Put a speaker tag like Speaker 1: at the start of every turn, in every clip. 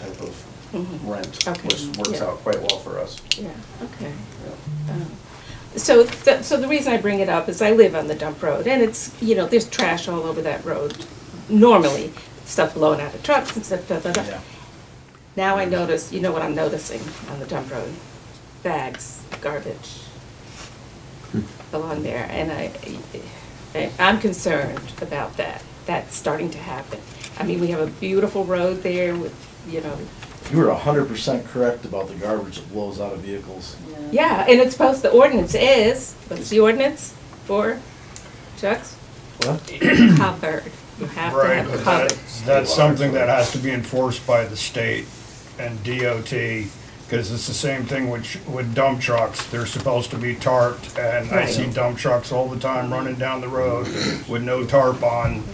Speaker 1: rent,
Speaker 2: Mm-hmm. Okay.
Speaker 1: which works
Speaker 2: Yeah.
Speaker 1: out quite well for us.
Speaker 2: Yeah, okay.
Speaker 1: Yeah.
Speaker 2: Um, So, th- so the reason I bring it up is I live on the dump road, and it's, you know, there's trash all over that road normally, stuff blowing out of trucks and stuff, blah, blah, blah.
Speaker 1: Yeah.
Speaker 2: Now I notice, you know what I'm noticing on the dump road? Bags, garbage along there, and I, I- I'm concerned about that. That's starting to happen. I mean, we have a beautiful road there with, you know,
Speaker 3: You were hundred percent correct about the garbage that blows out of vehicles.
Speaker 2: yeah, and it's supposed, the ordinance is, what's the ordinance for trucks?
Speaker 3: What?
Speaker 2: Covered. You have to
Speaker 4: Right,
Speaker 2: have
Speaker 4: but
Speaker 2: covered.
Speaker 4: that, that's something that has to be enforced by the state and DOT, because it's the same thing which, with dump trucks, they're supposed to be tarped, and I see
Speaker 2: Right.
Speaker 4: dump trucks all the time running down the road with no tarp on,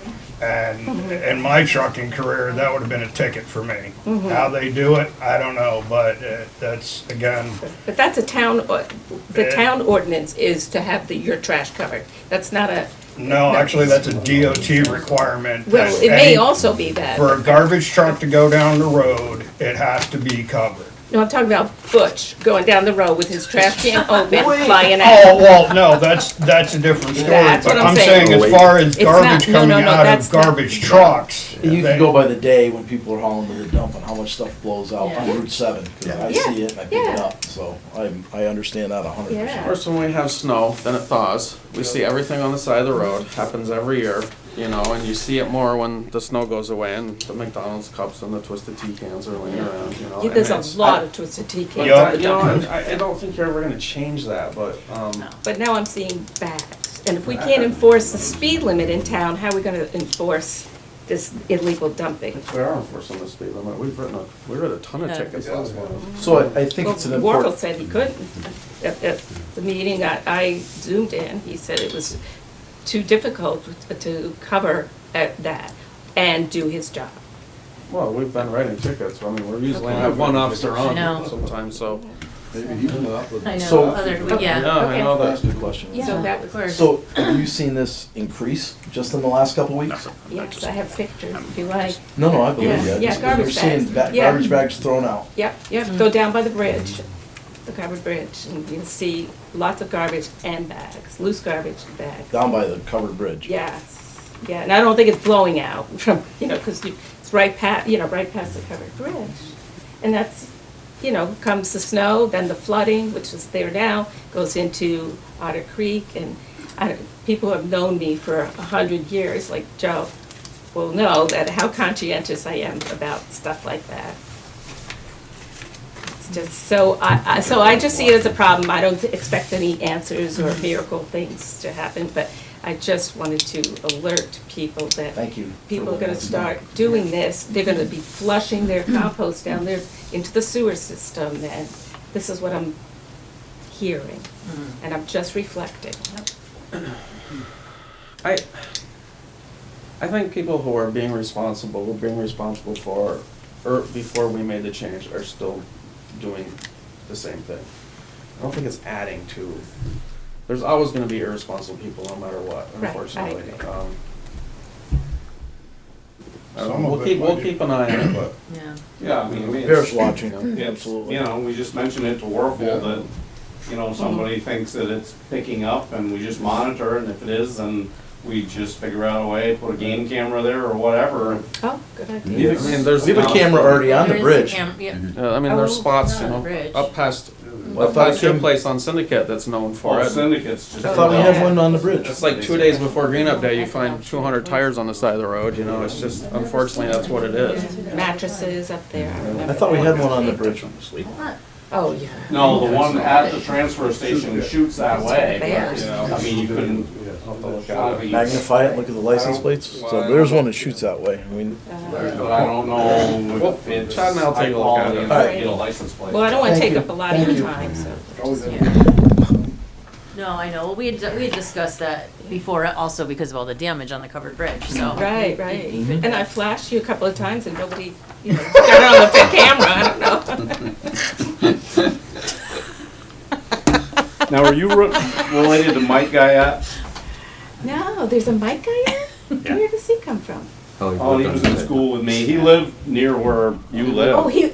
Speaker 4: and in my trucking career, that would have been a ticket for me.
Speaker 2: Mm-hmm.
Speaker 4: How they do it, I don't know, but uh, that's, again,
Speaker 2: But that's a town, or- the
Speaker 4: Eh.
Speaker 2: town ordinance is to have the, your trash covered. That's not a,
Speaker 4: no, actually, that's a DOT requirement.
Speaker 2: well,
Speaker 4: that
Speaker 2: it may
Speaker 4: any-
Speaker 2: also be that.
Speaker 4: For a garbage truck to go down the road, it has to be covered.
Speaker 2: No, I'm talking about Butch going down the road with his trash can open, flying out.
Speaker 4: Oh, well, no, that's, that's a different story,
Speaker 2: That's
Speaker 4: but
Speaker 2: what I'm
Speaker 4: I'm saying
Speaker 1: saying.
Speaker 4: as far as
Speaker 2: It's not-
Speaker 4: garbage
Speaker 2: no, no,
Speaker 4: coming
Speaker 2: no,
Speaker 4: out
Speaker 2: that's
Speaker 4: of
Speaker 2: not-
Speaker 4: garbage trucks.
Speaker 3: You
Speaker 4: they-
Speaker 3: can go by the day when people are hauling to the dump and how much stuff blows out on Route seven, 'cause I
Speaker 2: Yeah.
Speaker 3: see it and I pick it
Speaker 2: Yeah.
Speaker 3: up, so I, I understand that hundred
Speaker 2: Yeah.
Speaker 3: percent.
Speaker 1: Of course, when we have snow, then it thaws. We see everything on the side of the road. Happens every year, you know, and you see it more when the snow goes away and the McDonald's cups and the twisted tea cans are laying around,
Speaker 4: Oh.
Speaker 1: you know.
Speaker 2: Yeah,
Speaker 1: and
Speaker 2: There's
Speaker 1: it's-
Speaker 2: a lot of twisted tea
Speaker 1: But,
Speaker 2: cans
Speaker 4: Yeah.
Speaker 1: uh,
Speaker 2: on the
Speaker 1: you know,
Speaker 2: dump.
Speaker 1: I, I don't think you're ever gonna change that, but, um,
Speaker 2: But now I'm seeing bags. And if we can't enforce the speed limit in town, how are we gonna enforce this illegal dumping?
Speaker 1: we are enforcing the speed limit. We've written a, we wrote a ton of tickets last month.
Speaker 3: So I, I think
Speaker 2: Well,
Speaker 3: it's an
Speaker 2: Warfel
Speaker 3: important,
Speaker 2: said he couldn't. At, at the meeting that I zoomed in, he said it was too difficult to cover uh, that and do his job.
Speaker 1: Well, we've been writing tickets. I mean, we're usually have one officer on
Speaker 5: know.
Speaker 1: sometimes, so.
Speaker 5: I know,
Speaker 3: So-
Speaker 5: other, yeah.
Speaker 1: I
Speaker 2: okay.
Speaker 1: know
Speaker 3: that's
Speaker 1: that.
Speaker 3: a good question.
Speaker 2: So that was.
Speaker 3: So have you seen this increase just in the last couple of weeks?
Speaker 2: Yes, I have pictures, if you like.
Speaker 3: No, no, I believe
Speaker 2: Yeah,
Speaker 3: you. I
Speaker 2: yeah,
Speaker 3: just-
Speaker 2: garbage
Speaker 3: You're seeing
Speaker 2: bags.
Speaker 3: ba-
Speaker 2: Yeah.
Speaker 3: garbage bags thrown out.
Speaker 2: Yep, yep, go down by the bridge, the covered bridge, and you'll see lots of garbage and bags, loose garbage and bags.
Speaker 3: down by the covered bridge.
Speaker 2: Yes, yeah, and I don't think it's blowing out from, you know, because it's right past, you know, right past the covered bridge. And that's, you know, comes the snow, then the flooding, which is there now, goes into Otter Creek, and I, people who have known me for a hundred years, like Joe, will know that how conscientious I am about stuff like that. It's just, so I, I, so I just see it as a problem, I don't expect any answers
Speaker 3: Mm-hmm.
Speaker 2: or miracle things to happen, but I just wanted to alert people that
Speaker 3: Thank you. for
Speaker 2: people are
Speaker 3: letting
Speaker 2: gonna
Speaker 3: us know.
Speaker 2: start doing this, they're gonna be flushing their compost down there into the sewer system, and this is what I'm hearing, and I'm just reflecting.
Speaker 1: I, I think people who are being responsible, who are being responsible for, or before we made the change, are still doing the same thing. I don't think it's adding to, there's always gonna be irresponsible people no matter what,
Speaker 2: Right, I
Speaker 1: unfortunately.
Speaker 2: agree.
Speaker 1: Um, I don't
Speaker 4: Some
Speaker 1: know,
Speaker 4: of
Speaker 1: we'll
Speaker 4: it
Speaker 1: keep,
Speaker 4: might
Speaker 1: we'll
Speaker 4: be-
Speaker 1: keep an eye on it, but.
Speaker 5: Yeah.
Speaker 6: Yeah, I mean, we,
Speaker 3: Bears
Speaker 6: it's,
Speaker 3: watching,
Speaker 6: it's,
Speaker 3: absolutely.
Speaker 6: you know, we just mentioned it to Warfel that, you know, somebody thinks that it's picking up and we just monitor and if it is, then we just figure out a way, put a game camera there or whatever.
Speaker 2: Oh, good idea.
Speaker 3: Yeah.
Speaker 1: I mean, there's,
Speaker 3: We have a
Speaker 1: yeah,
Speaker 3: camera already on the
Speaker 5: There is a
Speaker 3: bridge.
Speaker 5: cam- yeah.
Speaker 1: I mean, there's
Speaker 2: Oh,
Speaker 1: spots, you
Speaker 5: not a
Speaker 1: know,
Speaker 5: bridge.
Speaker 1: up past,
Speaker 3: Well, I
Speaker 1: up
Speaker 3: thought it
Speaker 1: past your
Speaker 3: came-
Speaker 1: place on Syndicate that's known for
Speaker 6: Or
Speaker 1: it.
Speaker 6: syndicates just.
Speaker 3: I thought we had one on the bridge.
Speaker 1: It's like two days before Green Up Day, you find two hundred tires on the side of the road, you know, it's just, unfortunately, that's what it is.
Speaker 2: Mattresses up there, I remember.
Speaker 3: I thought we
Speaker 2: that.
Speaker 3: had one on the bridge. Mm-hmm.
Speaker 2: Oh, yeah.
Speaker 6: No, the one at the transfer station shoots that way, but, you know, I mean, you couldn't.
Speaker 3: Magnify it, look at the license plates. So there's one that shoots that way. I mean,
Speaker 6: But I don't know if it's
Speaker 1: Chad and I'll take
Speaker 6: high
Speaker 1: a look at it.
Speaker 6: quality and
Speaker 2: Alright.
Speaker 6: get a license plate.
Speaker 2: Well, I don't want to take
Speaker 3: Thank you.
Speaker 2: up a lot of
Speaker 3: Thank
Speaker 2: your
Speaker 3: you.
Speaker 2: time, so.
Speaker 5: No, I know, Well, we had, we had discussed that before also because of all the damage on the covered bridge, so.
Speaker 2: Right, right.
Speaker 3: Mm-hmm.
Speaker 2: And I flashed you a couple of times and nobody, you know, got it on the fit camera, I don't know.
Speaker 6: Now, are you re- related to Mike Guyette?
Speaker 2: No, there's a mic guy here? Where does he come from?
Speaker 6: Oh, he was in school with me. He lived near where you live.
Speaker 2: Oh, he,